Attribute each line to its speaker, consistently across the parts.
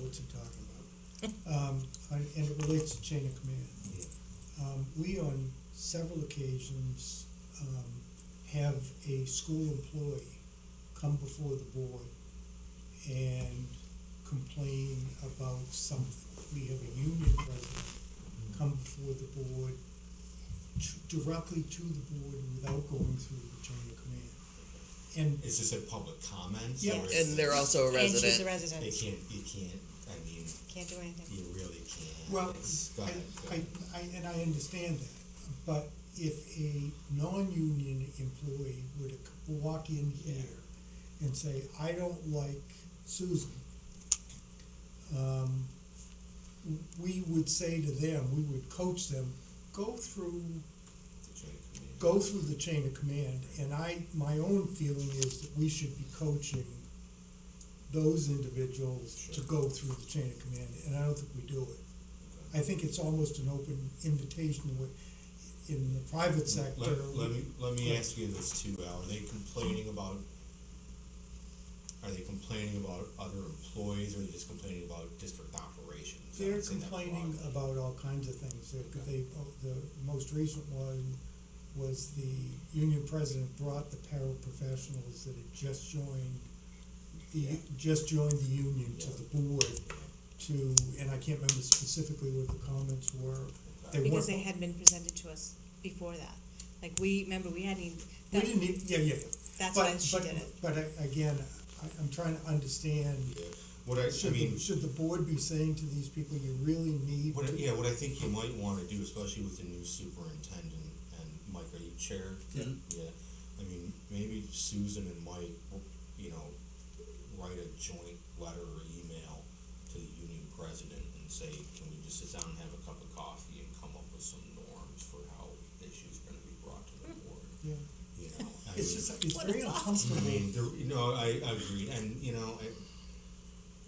Speaker 1: what you're talking about. Um, and and it relates to chain of command. Um, we on several occasions, um, have a school employee come before the board and complain about something. We have a union president come before the board, t- directly to the board without going through the chain of command. And
Speaker 2: Is this a public comment?
Speaker 1: Yeah.
Speaker 2: or is
Speaker 3: And they're also a
Speaker 4: And she's a
Speaker 3: resident.
Speaker 2: They
Speaker 4: resident,
Speaker 2: can't, you can't, I mean,
Speaker 4: can't do anything.
Speaker 2: you really can't.
Speaker 1: Well,
Speaker 2: It's
Speaker 1: I,
Speaker 2: got-
Speaker 1: I, I, and I understand that, but if a non-union employee were to c- walk in here and say, I don't like Susan, um, w- we would say to them, we would coach them, go through,
Speaker 2: it's a joint committee.
Speaker 1: go through the chain of command, and I, my own feeling is that we should be coaching those individuals to
Speaker 2: Sure.
Speaker 1: go through the chain of command, and I don't think we do it. I think it's almost an open invitation with, in the private sector.
Speaker 2: Let, let me, let me ask you this too, Al, are they complaining about, are they complaining about other employees, or are they just complaining about district operations? I
Speaker 1: They're
Speaker 2: would say that's
Speaker 1: complaining
Speaker 2: broad.
Speaker 1: about all kinds of things. They-
Speaker 2: Okay.
Speaker 1: They, oh, the most recent one was the union president brought the paraprofessionals that had just joined, the,
Speaker 2: Yeah.
Speaker 1: just joined the union to
Speaker 2: Yeah.
Speaker 1: the board to, and I can't remember specifically what the comments were. They weren't.
Speaker 4: Because they had been presented to us before that. Like, we, remember, we hadn't even,
Speaker 1: We
Speaker 4: that,
Speaker 1: didn't, e- yeah, yeah.
Speaker 4: that's
Speaker 1: But-
Speaker 4: why she
Speaker 1: but-
Speaker 4: did it.
Speaker 1: But I- again, I, I'm trying to understand
Speaker 2: Yeah. What I, I
Speaker 1: Should, the
Speaker 2: mean,
Speaker 1: should the board be saying to these people, you really need
Speaker 2: what, I-
Speaker 1: to?
Speaker 2: yeah, what I think you might wanna do, especially with the new superintendent, and Mike, are you chair?
Speaker 1: Yeah.
Speaker 2: Yeah, I mean, maybe Susan and Mike, you know, write a joint letter or email to the union president and say, can we just sit down and have a cup of coffee and come up with some norms for how issues are gonna be brought to the board,
Speaker 1: Yeah.
Speaker 2: you know? I
Speaker 1: It's
Speaker 2: mean-
Speaker 1: just, it's
Speaker 4: What
Speaker 1: very
Speaker 4: a thought.
Speaker 2: I
Speaker 1: uncomfortable,
Speaker 2: mean, there, you know, I, I agree, and, you know, I,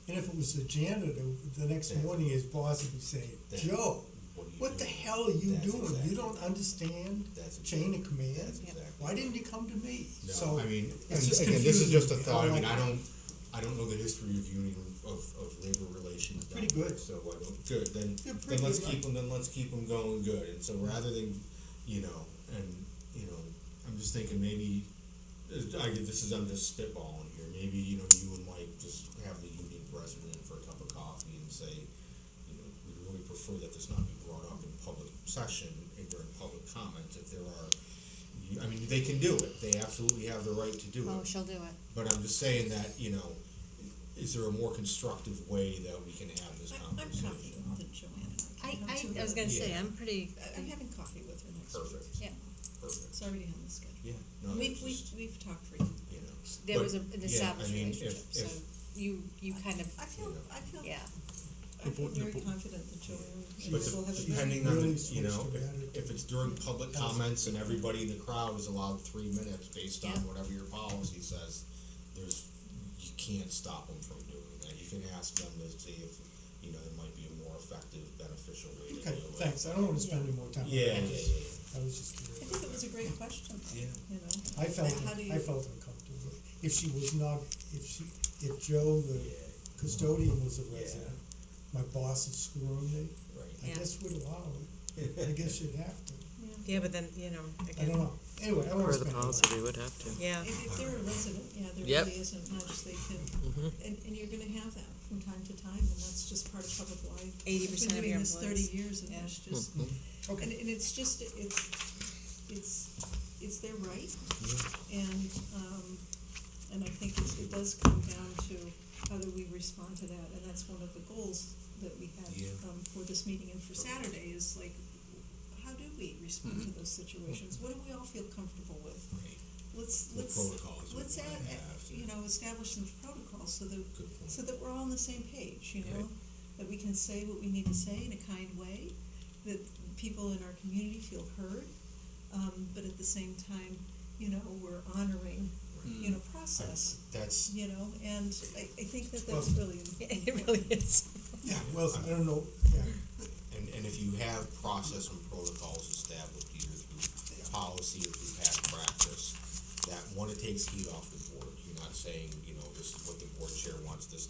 Speaker 1: and if it was the janitor, the next
Speaker 2: Yeah.
Speaker 1: morning his boss would be saying,
Speaker 2: Yeah.
Speaker 1: Joe,
Speaker 2: what do you?
Speaker 1: what
Speaker 2: do?
Speaker 1: the hell are you
Speaker 2: That's
Speaker 1: doing?
Speaker 2: exactly-
Speaker 1: You don't understand
Speaker 2: That's
Speaker 1: chain
Speaker 2: exactly-
Speaker 1: of command?
Speaker 2: That's exactly.
Speaker 1: Why didn't you come to me?
Speaker 2: No,
Speaker 1: So,
Speaker 2: I mean,
Speaker 1: it's
Speaker 2: and
Speaker 1: just
Speaker 2: again, this is just a
Speaker 1: confusing.
Speaker 2: thought, I mean,
Speaker 1: Yeah.
Speaker 2: I don't, I don't know the history of union, of, of labor relations down
Speaker 1: Pretty
Speaker 2: here,
Speaker 1: good.
Speaker 2: so I don't, good, then,
Speaker 1: They're
Speaker 2: then
Speaker 1: pretty
Speaker 2: let's
Speaker 1: good.
Speaker 2: keep them, then let's keep them going good, and so rather than, you know, and, you know, I'm just thinking maybe, uh, I, get- this is, I'm just spitballing here, maybe, you know, you and Mike just have the union president in for a cup of coffee and say, you know, we really prefer that this not be brought up in public session and during public comments if there are, you- I mean, they can do it, they absolutely have the right to do
Speaker 4: Oh,
Speaker 2: it.
Speaker 4: she'll do it.
Speaker 2: But I'm just saying that, you know, is there a more constructive way that we can have this
Speaker 5: I'm, I'm
Speaker 2: conversation?
Speaker 5: talking with Joanna.
Speaker 4: I,
Speaker 5: I'm too
Speaker 4: I, I was
Speaker 5: early.
Speaker 4: gonna say,
Speaker 2: Yeah.
Speaker 4: I'm pretty,
Speaker 5: I- I'm having coffee with her next week.
Speaker 2: Perfect.
Speaker 4: yeah,
Speaker 2: Perfect,
Speaker 5: It's already on the schedule.
Speaker 2: yeah, no,
Speaker 5: We've,
Speaker 2: it's
Speaker 5: we've,
Speaker 2: just,
Speaker 5: we've talked for you.
Speaker 2: you know.
Speaker 4: there
Speaker 2: But,
Speaker 4: was a,
Speaker 2: yeah,
Speaker 4: an
Speaker 2: I
Speaker 4: established
Speaker 2: mean, if-
Speaker 4: relationship, so
Speaker 2: if-
Speaker 4: you, you kind of,
Speaker 5: I feel, I feel,
Speaker 4: yeah.
Speaker 5: I
Speaker 6: The
Speaker 5: feel
Speaker 6: board- the
Speaker 5: very
Speaker 6: board-
Speaker 5: confident that Joanna
Speaker 2: But
Speaker 5: will
Speaker 2: de-
Speaker 5: have a. good-
Speaker 2: depending on,
Speaker 1: Really
Speaker 2: the- you know,
Speaker 1: switched to
Speaker 2: if,
Speaker 1: attitude.
Speaker 2: if it's during public comments and everybody in the crowd is allowed three minutes based on
Speaker 4: Yeah.
Speaker 2: whatever your policy says, there's, you can't stop them from doing that. You can ask them to see if, you know, there might be a more effective, beneficial way to do it.
Speaker 1: okay, thanks, I don't wanna spend any more time. on that.
Speaker 2: Yeah, yeah, yeah,
Speaker 1: I was just
Speaker 5: I
Speaker 1: curious.
Speaker 5: think it was a great question,
Speaker 2: yeah. Yeah.
Speaker 5: you know.
Speaker 1: I felt,
Speaker 5: How do you-
Speaker 1: I felt uncomfortable. If she was not, if she, if Joe, the custodian was a
Speaker 2: Yeah.
Speaker 1: resident, my boss is screwing me, I
Speaker 4: Yeah.
Speaker 1: guess would allow it. I guess you'd have to.
Speaker 7: Yeah, but then, you know,
Speaker 1: I don't
Speaker 7: again,
Speaker 1: know. Anyway, I
Speaker 6: Per
Speaker 1: wanna
Speaker 6: the
Speaker 1: spend. more
Speaker 6: policy, we would have to.
Speaker 7: yeah,
Speaker 5: If, if they're a resident, yeah, there
Speaker 6: Yep.
Speaker 5: really isn't much they can, and, and you're gonna have that from time to time, and that's just part of public life.
Speaker 4: 80% of your
Speaker 5: I've been doing this
Speaker 4: employees.
Speaker 5: thirty years, and
Speaker 4: Yeah.
Speaker 5: it's just,
Speaker 1: Okay.
Speaker 5: And, and it's just, it's, it's, it's their right, and, um, and I think it, it does come down to how do we respond to that, and that's one of the goals that we
Speaker 2: Yeah.
Speaker 5: had, um, for this meeting and for Saturday, is like, how do we respond to those situations? What do we all feel comfortable with?
Speaker 2: Right.
Speaker 5: Let's,
Speaker 2: What
Speaker 5: let's,
Speaker 2: protocols we
Speaker 5: let's add,
Speaker 2: wanna have,
Speaker 5: add- you know, establish some protocols so that,
Speaker 2: Good point.
Speaker 5: so that we're all on the same page, you know?
Speaker 2: Right.
Speaker 5: That we can say what we need to say in a kind way, that people in our community feel heard, um, but at the same time, you know, we're honoring,
Speaker 2: Mm.
Speaker 5: you know, process,
Speaker 2: That's,
Speaker 5: you know? And I, I think that
Speaker 1: Well-
Speaker 5: that's really
Speaker 7: it really is.
Speaker 1: Yeah, well, I don't know, yeah,
Speaker 2: And, and if you have process and protocols established either through policy or through past practice, that one, it takes heat off the board, you're not saying, you know, this is what the board chair wants this